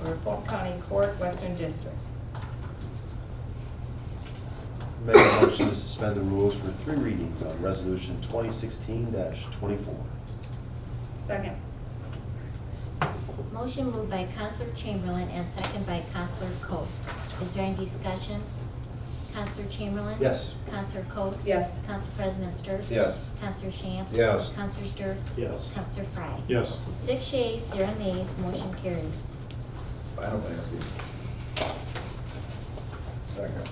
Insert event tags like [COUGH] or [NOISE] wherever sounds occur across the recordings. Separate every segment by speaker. Speaker 1: for Fulton County Court, Western District.
Speaker 2: Make a motion to suspend the rules for three readings on resolution twenty sixteen twenty-four.
Speaker 1: Second.
Speaker 3: Motion moved by Counselor Chamberlain and second by Counselor Coast. Is there any discussion? Counselor Chamberlain?
Speaker 2: Yes.
Speaker 3: Counselor Coast?
Speaker 1: Yes.
Speaker 3: Counsel President Sturts?
Speaker 4: Yes.
Speaker 3: Counselor Shamp?
Speaker 4: Yes.
Speaker 3: Counselor Sturts?
Speaker 4: Yes.
Speaker 3: Counselor Frye?
Speaker 4: Yes.
Speaker 3: Six yeas, zero nays, motion carries.
Speaker 4: Final passing. Second.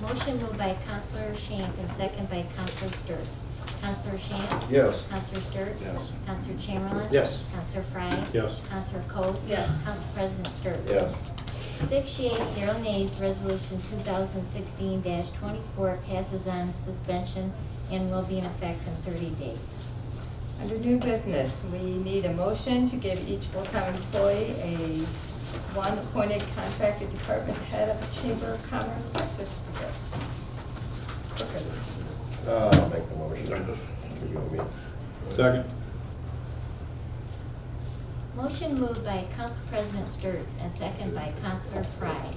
Speaker 3: Motion moved by Counselor Shamp and second by Counselor Sturts. Counselor Shamp?
Speaker 4: Yes.
Speaker 3: Counselor Sturts?
Speaker 4: Yes.
Speaker 3: Counselor Chamberlain?
Speaker 4: Yes.
Speaker 3: Counselor Frye?
Speaker 4: Yes.
Speaker 3: Counselor Coast?
Speaker 1: Yes.
Speaker 3: Counsel President Sturts?
Speaker 4: Yes.
Speaker 3: Six yeas, zero nays, resolution two thousand sixteen twenty-four passes on suspension and will be in effect in thirty days.
Speaker 1: Under new business, we need a motion to give each full-time employee a one appointed contracted department head of the Chamber of Commerce certificate. Workers.
Speaker 4: Uh, I'll make the motion. You and me.
Speaker 5: Second.
Speaker 3: Motion moved by Council President Sturts and second by Councilor Frye.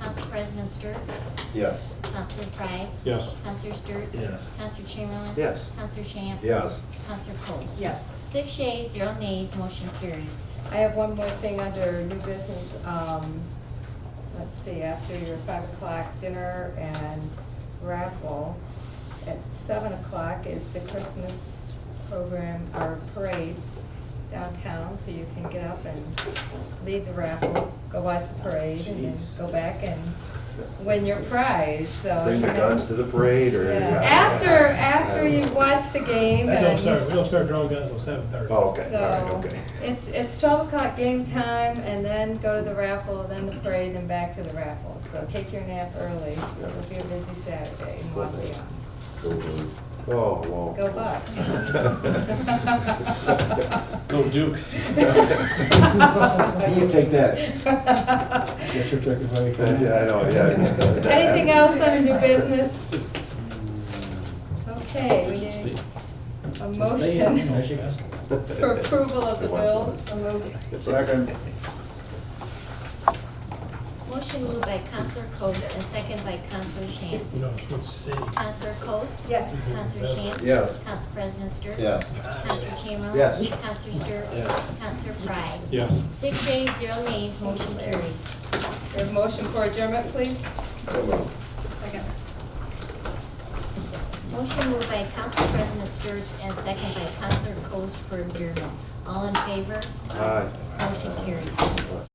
Speaker 3: Council President Sturts? [LAUGHS]
Speaker 4: Yes. [LAUGHS]
Speaker 3: Councilor Frye?
Speaker 5: Yes.
Speaker 3: Councilor Sturts?
Speaker 4: Yes.
Speaker 3: Counselor Chamberlain?
Speaker 2: Yes.
Speaker 3: Counselor Shamp?
Speaker 4: Yes.
Speaker 3: Counselor Coats?
Speaker 1: Yes.
Speaker 3: Six yeas, zero nays, motion carries.
Speaker 1: I have one more thing under new business. Um, Let's see, after your five o'clock dinner and raffle, at seven o'clock is the Christmas program, or parade downtown, so you can get up and leave the raffle, go watch the parade, and then
Speaker 2: Jeez.
Speaker 1: go back and win your prize, so.
Speaker 2: Bring the
Speaker 1: you know.
Speaker 2: guns to the parade
Speaker 1: Yeah.
Speaker 2: or.
Speaker 1: After, after you watch the game
Speaker 5: We
Speaker 1: and.
Speaker 5: don't start, we don't start drawing guns until seven thirty.
Speaker 4: Oh, okay, all
Speaker 1: So,
Speaker 4: right, okay.
Speaker 1: it's, it's twelve o'clock game time, and then go to the raffle, then the parade, then back to the raffle. So take your nap early, it'll be a busy Saturday in Waseon.
Speaker 2: Oh, whoa.
Speaker 1: Go
Speaker 2: [LAUGHS]
Speaker 1: Bucks.
Speaker 5: [LAUGHS] Go
Speaker 1: [LAUGHS]
Speaker 5: Duke.
Speaker 2: You take that.
Speaker 1: that.
Speaker 2: Yeah, I know, yeah.
Speaker 1: [LAUGHS] Anything else under new business? Okay, we need a motion [LAUGHS] for approval of the bills. So moved.
Speaker 4: Second.
Speaker 3: Motion moved by Counselor Coats and second by Counselor Shamp.
Speaker 5: You know, it's what city.
Speaker 3: Counselor Coast?
Speaker 1: Yes.
Speaker 3: Counselor Shamp?
Speaker 4: Yes.
Speaker 3: Counsel President Sturts?
Speaker 4: Yes.
Speaker 3: Counselor Chamberlain?
Speaker 2: Yes.
Speaker 3: Counselor Sturts?
Speaker 4: Yes.
Speaker 3: Counselor Frye?
Speaker 5: Yes.
Speaker 3: Six yeas, zero nays, motion carries.
Speaker 1: We have a motion for adjournment, please?
Speaker 4: So moved.
Speaker 1: Second.
Speaker 3: Motion moved by Council President Sturts and second by Counselor Coast for adjournment. All in favor?
Speaker 2: Aye.
Speaker 3: Motion carries.